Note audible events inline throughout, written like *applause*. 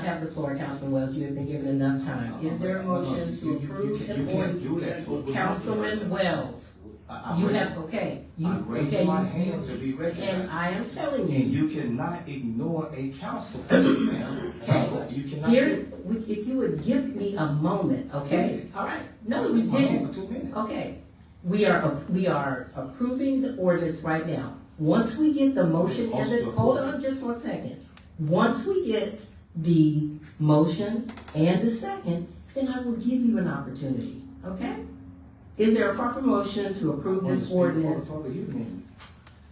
I have the floor, Councilman Wells, you have been given enough time. Is there a motion to approve You the can't ordinance? do that to a police Councilman person. Wells, I- I'm you raising- have, okay, you, I'm okay, raising my you- hand to be recognized. and I am telling And you, you cannot ignore a council. ma'am. Okay. You cannot. here, we- if you would give me a moment, okay? All right, no, you My hand didn't, for Two minutes. okay. We are, we are approving the ordinance right now. Once we get the motion and the, hold on just one second. Once we get the motion and the second, then I will give you an opportunity, okay? Is there a proper motion to approve Want to this speak before ordinance? it's over, you didn't.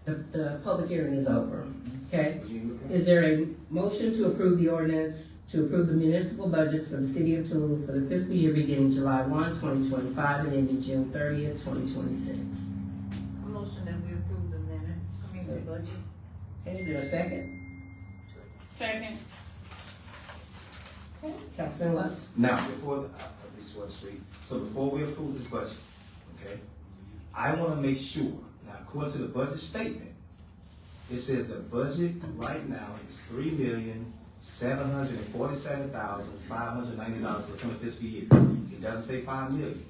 The, the public hearing is over, okay? You didn't look at it. Is there a motion to approve the ordinance to approve the municipal budgets for the city of Tallulah for the fiscal year beginning July 1, 2025, and ending June thirtieth, twenty twenty-six? Motion that we approve the minute, I mean, the budget. Is there a second? Second. Councilman Lutz? Now, before, the- uh, I I just want to speak, so before we approve this budget, okay? I want to make sure, now according to the budget statement, it says the budget right now is three million, seven hundred and forty-seven thousand, five hundred and ninety dollars for the coming fiscal year. It doesn't say five million.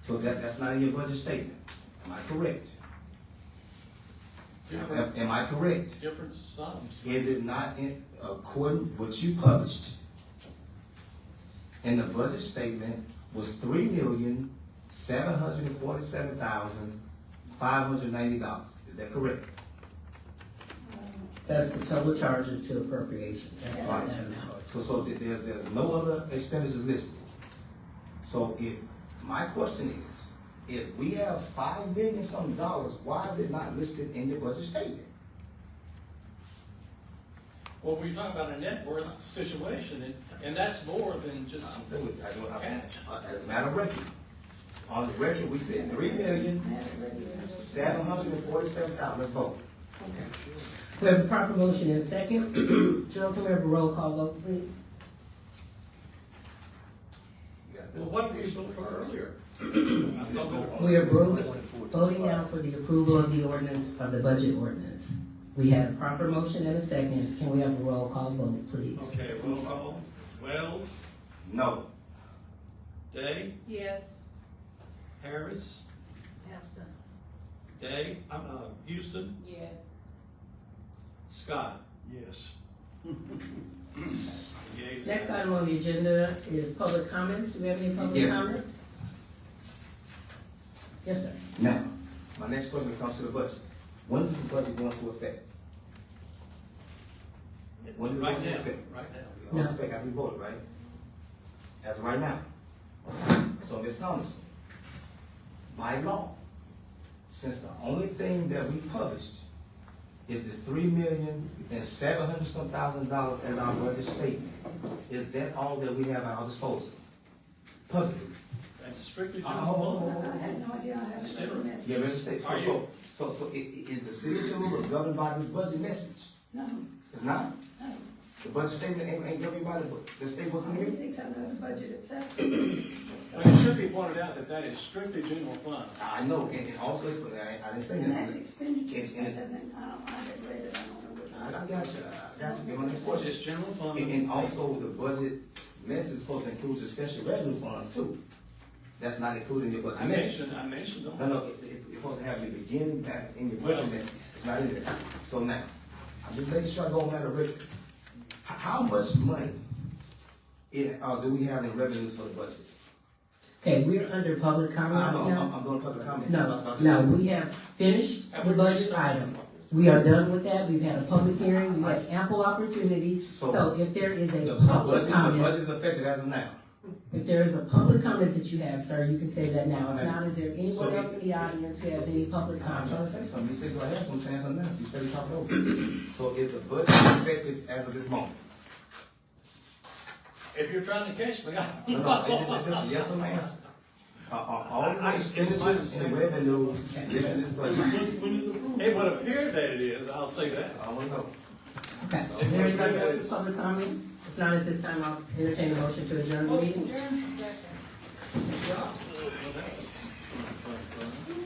So that, that's not in your budget statement. Am I correct? Am- Different, am I correct? different sums. Is it not in according what you published? And the budget statement was three million, seven hundred and forty-seven thousand, five hundred and ninety dollars. Is that correct? That's the total charges to appropriations. That's all Right. that amount. So, so th- there's, there's no other expenditures listed. So if, my question is, if we have five million some dollars, why is it not listed in your budget statement? Well, we talk about a net worth situation, and, and that's more than just, I'm through with it. I don't- I- As a matter of record, on the record, we said three million, seven hundred and forty-seven thousand, let's vote. We have a proper motion and second. *clears throat* Joe, can we have a roll call vote, please? You got it. well, what we spoke for earlier. We are voting, voting now for the approval of the ordinance, of the budget ordinance. We had a proper motion and a second. Can we have a roll call vote, please? Okay, roll call, Wells, No, Day, Yes. Harris, Absent. Day, uh, uh, Houston, Yes. Scott. Yes. Next item on the agenda is public comments. Do we have any public Yes. comments? Yes, sir. now, my next question comes to the budget. When is the budget going to affect? When is it Right going to now, affect? right now. It No. affect after we vote, right? As of right now. So, Ms. Thomas, by law, since the only thing that we published is this three million and seven hundred some thousand dollars as our budget statement, is that all that we have at our disposal? Publicly. That's strictly. Uh, hold on, hold on, I hold on. had no idea I had Stay a right. message. Yeah, real estate. So, Are so, you- so, so i- i- is the city of Tallulah governed by this budget message? No, It's not. no. The budget statement ain't, ain't governed by the, bu- the state I wasn't mean, here? it takes out of the budget itself. But it should be pointed out that that is strictly general fund. I know, and it also, is- but I, I didn't say And that's that. expenditure, It- it- that doesn't, I don't, I haven't read it, I don't know I, I what. got you, I got you, Get my next question. It's general fund. And, and also, the budget message is supposed to include the special revenue funds too. That's not included in your I budget message. mentioned, I mentioned them. No, no, it, it, it's supposed to have your beginning back in your Well- budget message, it's not in there. So now, I'm just making sure I go on that record. H- How, much money it, uh, do we have in revenues for the budget? Okay, we're under public I comments know, I'm, now. I'm going to public comment. about- No, about this. no, we have finished the budget item. We are done with that. We've had a public hearing. We had ample opportunity. So if there is The a budget, public the comment, budget's affected as of now. If there is a public comment that you have, sir, you can say that now. If Yes. not, is there anyone else in the audience who has any public I'm trying to comments? say something, you said go ahead, so I'm saying something else, you said you talked over. me. So is the budget effective as of this moment? If you're trying to catch me, *laughs* I. No, no, it's just, it's just a yes or no answer. Are, are all the I- I- expenditures and revenues listed in this budget? It would appear that it is, I'll say that. That's all I know. Okay, is there anybody else with public comments? If not, at this time, I'll entertain a motion to adjourn the meeting. Motion adjourned. Second.